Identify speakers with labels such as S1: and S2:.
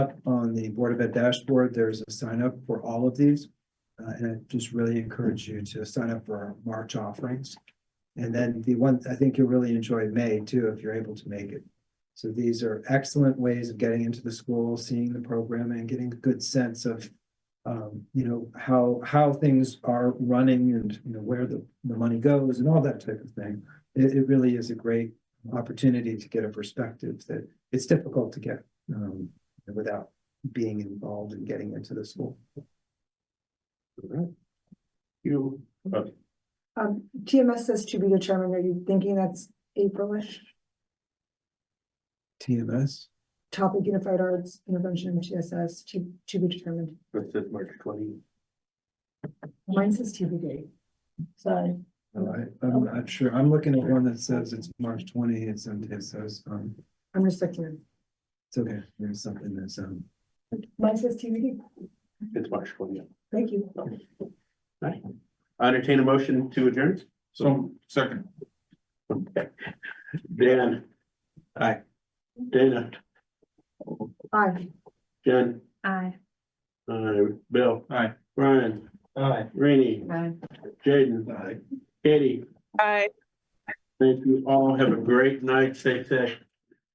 S1: on the Board of Ed dashboard, there's a sign up for all of these. Uh, and I just really encourage you to sign up for our March offerings. And then the one, I think you'll really enjoy May too, if you're able to make it. So these are excellent ways of getting into the school, seeing the program and getting a good sense of um, you know, how, how things are running and, you know, where the, the money goes and all that type of thing. It, it really is a great opportunity to get a perspective that it's difficult to get, um, without being involved and getting into the school.
S2: You, uh,
S3: Um, TMS says to be determined. Are you thinking that's Aprilish?
S1: TMS,
S3: Topic Unified Arts Intervention in TSS to, to be determined.
S2: that's it, March twenty.
S3: Mine says TBD. Sorry.
S1: all right, I'm not sure, I'm looking at one that says it's March twenty, it's, it says, um,
S3: I'm just checking.
S1: it's okay, there's something that's, um,
S3: Mine says TBD.
S2: It's March twenty.
S3: Thank you.
S2: Right. I Entertain a motion to adjourn.
S4: So, second.
S2: Dan. Hi. Dana,
S3: Aye.
S2: Jen,
S3: Aye.
S2: uh, Bill.
S4: Aye.
S2: Brian,
S4: Aye.
S2: Rainey,
S3: Aye.
S2: Jaden,
S4: Aye.
S2: Katie.
S5: Bye.
S2: Thank you all. Have a great night. Stay safe.